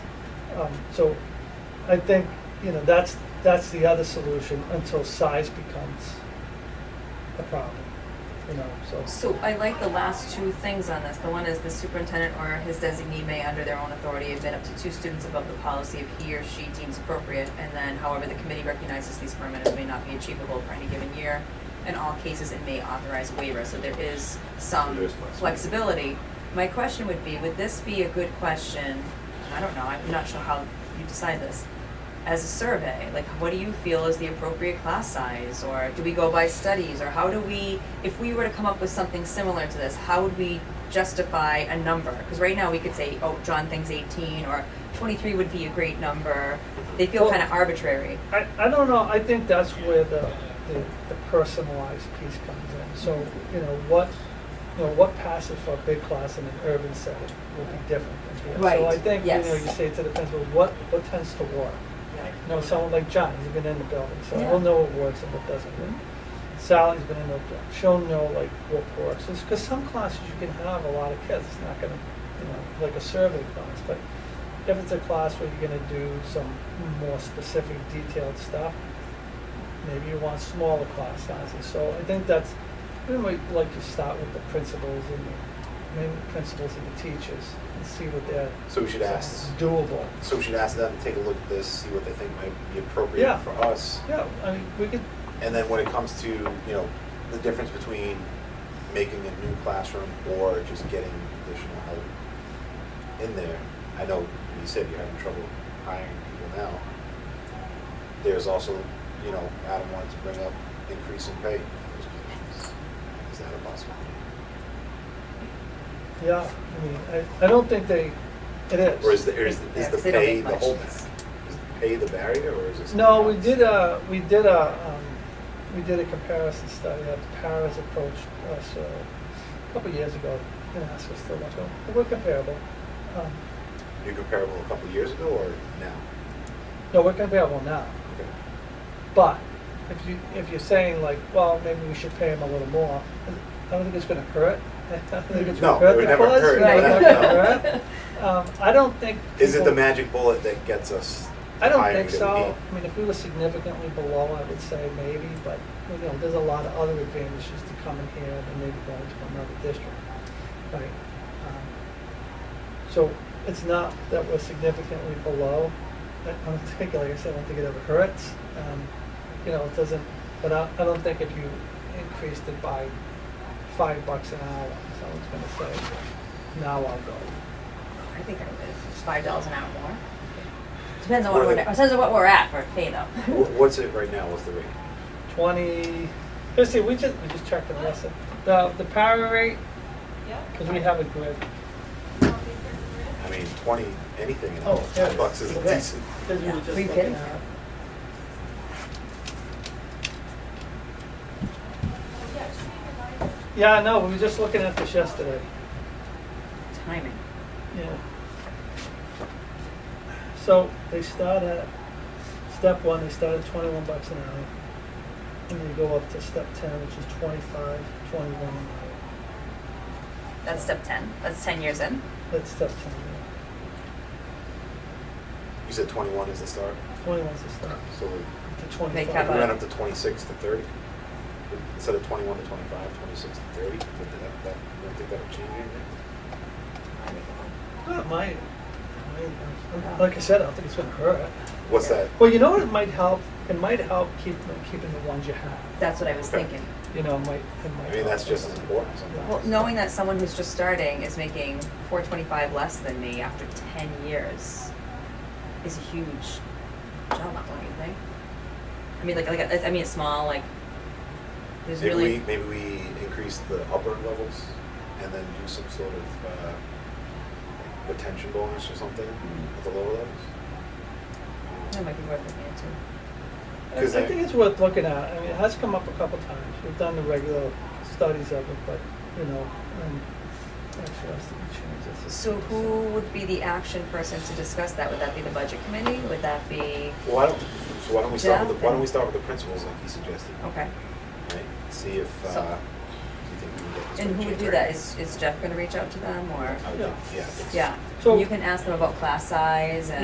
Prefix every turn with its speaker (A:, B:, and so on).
A: Um, So I think, you know, that's, that's the other solution until size becomes a problem, you know, so.
B: So I like the last two things on this. The one is the superintendent or his designee may, under their own authority, admit up to two students above the policy if he or she deems appropriate. And then however, the committee recognizes these parameters may not be achievable for any given year. In all cases, it may authorize waiver, so there is some
C: There is flexibility.
B: flexibility. My question would be, would this be a good question, I don't know, I'm not sure how you decide this, as a survey, like what do you feel is the appropriate class size, or do we go by studies, or how do we, if we were to come up with something similar to this, how would we justify a number? Because right now we could say, oh, John thinks eighteen, or twenty-three would be a great number, they feel
A: Well-
B: kind of arbitrary.
A: I, I don't know, I think that's where the, the the personalized piece comes in. So, you know, what, you know, what passes for a big class in an urban setting will be different than here. So I
B: Right,
A: think, you know,
B: yes.
A: you say to the principal, what, what tends to work? You know, someone like John, he's been in the building, so
B: Yeah.
A: he'll know what works and what doesn't work. Sally's been in the building, she'll know like what works. It's because some classes you can have a lot of kids, it's not gonna, you know, like a survey class, but if it's a class where you're gonna do some more specific detailed stuff, maybe you want smaller class sizes. So I think that's, we might like to start with the principals and the, maybe the principals and the teachers and see what they're
C: So we should ask,
A: doable.
C: so we should ask them to take a look at this, see what they think might be appropriate
A: Yeah.
C: for us.
A: Yeah, I mean, we could
C: And then when it comes to, you know, the difference between making a new classroom or just getting additional help in there, I know you said you're having trouble hiring people now. There's also, you know, Adam wanted to bring up increase in pay for those positions. Is that a possibility?
A: Yeah, I mean, I, I don't think they, it is.
C: Or is the, or is the, is
B: Yeah, 'cause they
C: the
B: don't
C: pay
B: make
C: the
B: much.
C: whole, is the pay the barrier or is it? something
A: No, we
C: else?
A: did uh, a, we did a, um, we did a comparison study that Paris approached us uh, a couple of years ago, and asked us to look at, we're comparable. Um,
C: You're comparable a couple years ago or now?
A: No, we're comparable now,
C: Okay.
A: but if you, if you're saying like, well, maybe we should pay them a little more, I don't think it's gonna hurt. I don't think it's
C: No,
A: gonna hurt
C: it would
A: the
C: never
A: cause,
C: hurt,
A: you know,
C: no,
A: it's
C: no,
A: not gonna
C: no.
A: hurt. Um, I don't think.
C: Is it the
A: people-
C: magic bullet that gets us?
A: I don't
C: hiring
A: think
C: that we
A: so.
C: need?
A: I mean, if we were significantly below, I would say maybe, but, you know, there's a lot of other advantages to coming here and maybe going to another district, right? Um, So it's not that we're significantly below. I I don't think, like I said, I don't think it ever hurts. Um, You know, it doesn't, but I, I don't think if you increased it by five bucks an hour, someone's gonna say, now I'll go.
B: I think I would, if it's five dollars an hour more. Depends on what
C: Or
B: we're,
C: the-
B: depends on what we're at for pay though.
C: Wh- What's it right now? What's the rate?
A: twenty. Let's see, we just we just checked the lesson. The the power rate because we have a grid.
C: I mean, twenty, anything, you know,
A: Oh, yeah.
C: ten bucks is
A: Okay.
C: decent.
A: Because we
B: Yeah.
A: were just
B: Are you
A: looking
B: kidding?
A: at it. Yeah, I know. We were just looking at this yesterday.
B: Timing.
A: Yeah. So they start at step one. They start at twenty-one bucks an hour, and they go up to step ten, which is twenty-five, twenty-one an hour.
B: That's step ten. That's ten years in.
A: That's step ten. yeah.
C: You said twenty-one is the start,
A: Twenty-one's the start.
C: so we
A: To
B: They
A: twenty-five.
B: cap
C: we went up to twenty-six to thirty. Instead of twenty-one to 25, 26 to thirty, But that, that, I don't think that'll change anything.
A: Not mine. Mine, uh, Like I said, I don't think it's gonna hurt.
C: What's that?
A: Well, you know what? It might help. It might help keep keeping the ones you have.
B: That's what I was
C: Okay.
B: thinking.
A: You know, it might. It might
C: I mean,
A: help.
C: that's just as important sometimes.
B: Well, knowing that someone who's just starting is making four twenty-five less than me after ten years is a huge job, up, don't you think? I mean, like, like, I- I mean, it's small, like, there's
C: Maybe
B: really,
C: we, maybe we increase the upper levels and then do some sort of, uh, retention bonus or something at the lower levels?
B: that might be worth looking into.
A: I, I
C: 'Cause I-
A: think it's worth looking at. I mean, it has come up a couple times. We've done the regular studies of it, but you know, um, actually, I was thinking change this.
B: So who would be the action person to discuss that? Would that be the budget committee? Would that be,
C: Well, why don't, so why don't we start
B: Jeff
C: with, the- why don't
B: and-
C: we start with the principals like you suggested,
B: okay.
C: right? See if,
B: So-
C: uh, you think we can get this.
B: And
C: one
B: who would do
C: changed,
B: that?
C: right?
B: Is, is Jeff gonna reach out to them or?
C: I would think, yeah. I think so.
B: Yeah,
A: So-
B: you can ask them about class size and.